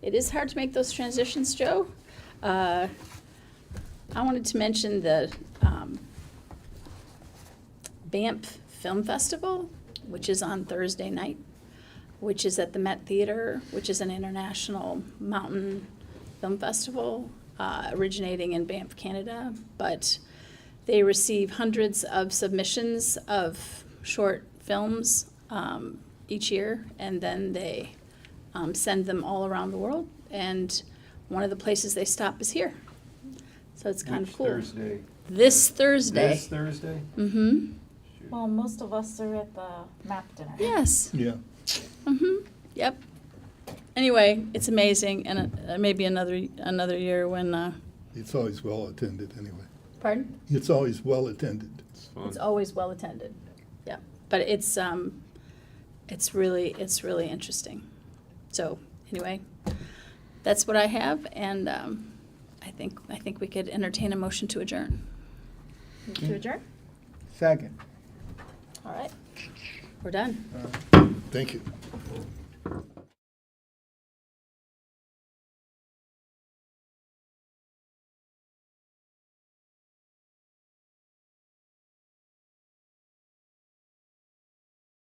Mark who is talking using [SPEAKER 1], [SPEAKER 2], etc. [SPEAKER 1] It is hard to make those transitions, Joe. Uh, I wanted to mention the um, Banff Film Festival, which is on Thursday night, which is at the Met Theater, which is an international mountain film festival uh, originating in Banff, Canada. But they receive hundreds of submissions of short films um, each year, and then they um, send them all around the world. And one of the places they stop is here. So it's kind
[SPEAKER 2] Which
[SPEAKER 1] of cool.
[SPEAKER 2] Thursday.
[SPEAKER 1] This Thursday.
[SPEAKER 2] This Thursday?
[SPEAKER 1] Mm-hmm.
[SPEAKER 2] Shoot.
[SPEAKER 3] Well, most of us are at the map dinner.
[SPEAKER 1] Yes.
[SPEAKER 4] Yeah.
[SPEAKER 1] Mm-hmm. Yep. Anyway, it's amazing, and uh, maybe another another year when. Uh,
[SPEAKER 4] It's always well attended anyway.
[SPEAKER 1] Pardon?
[SPEAKER 4] It's always well attended.
[SPEAKER 2] It's fun.
[SPEAKER 1] It's always well attended. Yeah, but it's um, it's really it's really interesting. So anyway, that's what I have, and um, I think I think we could entertain a motion to adjourn.
[SPEAKER 3] Move To adjourn?
[SPEAKER 5] Second.
[SPEAKER 1] All right, we're done.
[SPEAKER 4] Thank you.